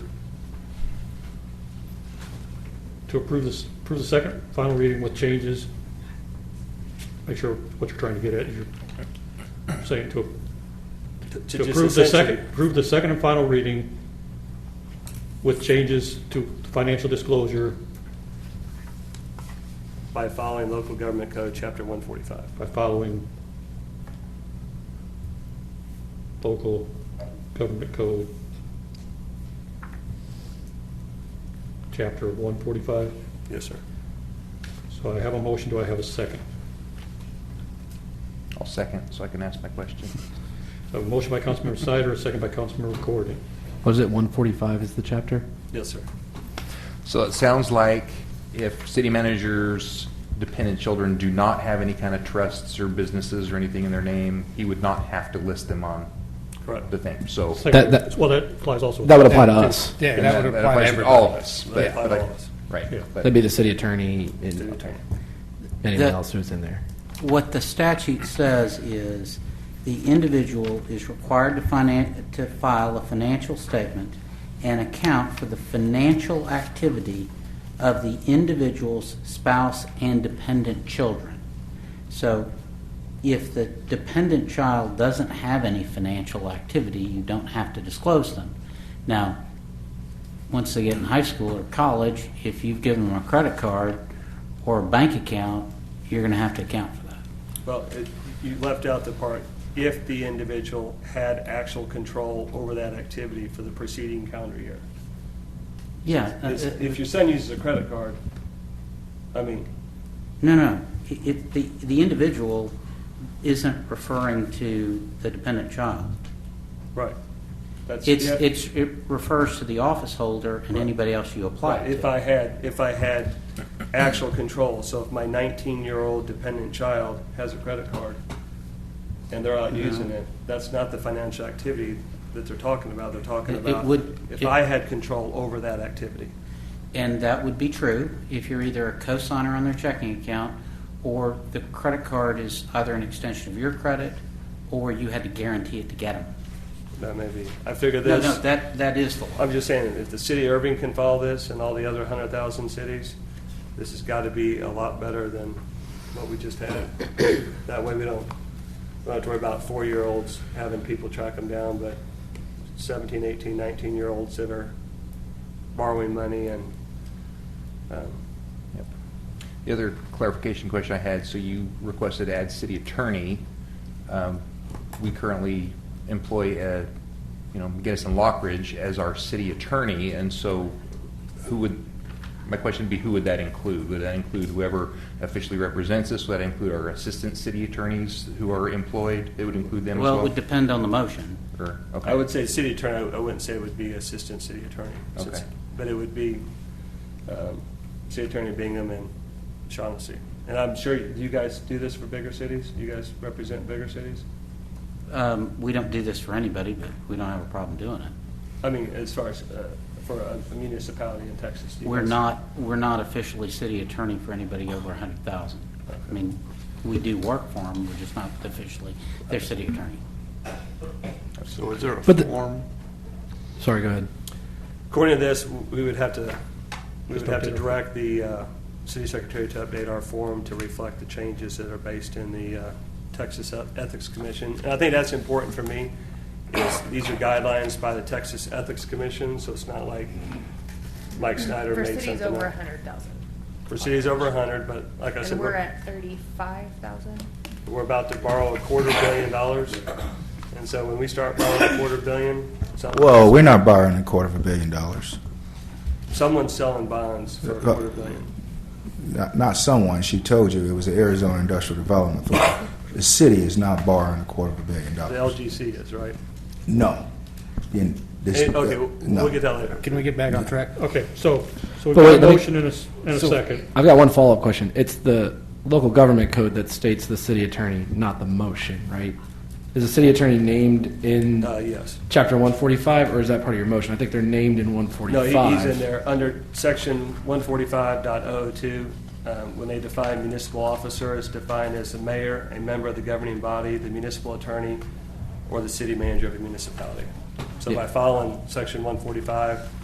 to approve this, approve the second, final reading with changes. Make sure what you're trying to get at, is you're saying to To to to just approve the second, essentially- approve the second and final reading with changes to financial disclosure By following local government code, chapter 145. by following local government code, chapter 145. Yes, sir. So I have a motion, do I have a second? I'll second, so I can ask my question. I have a motion by Councilmember Snyder, a second by Councilmember Corrigan. Was it 145 is the chapter? Yes, sir. So it sounds like if city managers' dependent children do not have any kind of trusts or businesses or anything in their name, he would not have to list them on Correct. the thing, so. That- that- Well, that applies also. That would apply to us. Yeah, that would apply to applies everybody. All of us, That but, applies but I- to all of us. Yeah. right. but- That'd be the city attorney City and attorney. anyone That- else who's in there. What the statute says is, the individual is required to finan, to file a financial statement and account for the financial activity of the individual's spouse and dependent children. So if the dependent child doesn't have any financial activity, you don't have to disclose them. Now, once they get in high school or college, if you've given them a credit card or a bank account, you're going to have to account for that. Well, it- you left out the part, if the individual had actual control over that activity for the preceding calendar year. Yeah. uh, It's- uh, If your son uses a credit card, I mean, No, no. I- If the, the individual isn't referring to the dependent child. right. That's- It's, yeah. it's, it refers to the office holder and anybody else you apply Right, it if to. I had, if I had actual control, so if my 19-year-old dependent child has a credit card and they're out using it, that's not the financial activity that they're talking about, they're talking It- it about would- if it- I had control over that activity. And that would be true if you're either a cosigner on their checking account or the credit card is either an extension of your credit or you had to guarantee it to get them. That may be, I figure No, this. no, that, that is the law. I'm just saying, if the city of Irving can follow this and all the other hundred thousand cities, this has got to be a lot better than what we just had. That way we don't, we don't have to worry about four-year-olds having people track them down, but 17, 18, 19-year-olds that are borrowing money and, um, Yep. The other clarification question I had, so you requested to add city attorney. Um, We currently employ, uh, you know, Guinness and Lockridge as our city attorney, and so who would, my question would be, who would that include? Would that include whoever officially represents us? Would that include our assistant city attorneys who are employed? It would include them as well? Well, it would depend on the motion. Or- okay. I would say city attorney, I wouldn't say it would be assistant city attorney. since- Okay. But it would be um, city attorney Bingham and Shaughnessy. And I'm sure, do you guys do this for bigger cities? You guys represent bigger cities? Um, we don't do this for anybody, but we don't have a problem doing it. I mean, as far as uh, for a municipality in Texas. do you We're guys- not, we're not officially city attorney for anybody over a hundred thousand. I mean, we do work for them, we're just not officially their city attorney. So is there a But the- form? Sorry, go ahead. According to this, we would have to, we would Just have to update it. direct the uh, city secretary to update our form to reflect the changes that are based in the uh, Texas Ethics Commission. And I think that's important for me, is these are guidelines by the Texas Ethics Commission, so it's not like Mike Snyder For made something up. cities over a hundred thousand. For cities over 100, but like I said. And we're at thirty-five thousand? we're about to borrow a quarter billion dollars. And so when we start borrowing a quarter billion, some- Well, we're not borrowing a quarter of a billion dollars. someone's selling bonds for a quarter billion. Not, not someone, she told you, it was the Arizona Industrial Development Authority. The city is not borrowing a quarter of a billion The dollars. LGC is, right? No. In this- Eh, Okay, we'll no. we'll get that later. Can we get back on track? Okay, so, so we've But got a wait, let me- motion and a, s- and a So, second. I've got one follow-up question. It's the local government code that states the city attorney, not the motion, right? Is the city attorney named in Uh, Yes. chapter 145, or is that part of your motion? I think they're named in No, 145. he- he's in there, under section 145.002, um, when they define municipal officer, it's defined as the mayor, a member of the governing body, the municipal attorney, or the city manager of a municipality. So by following section 145,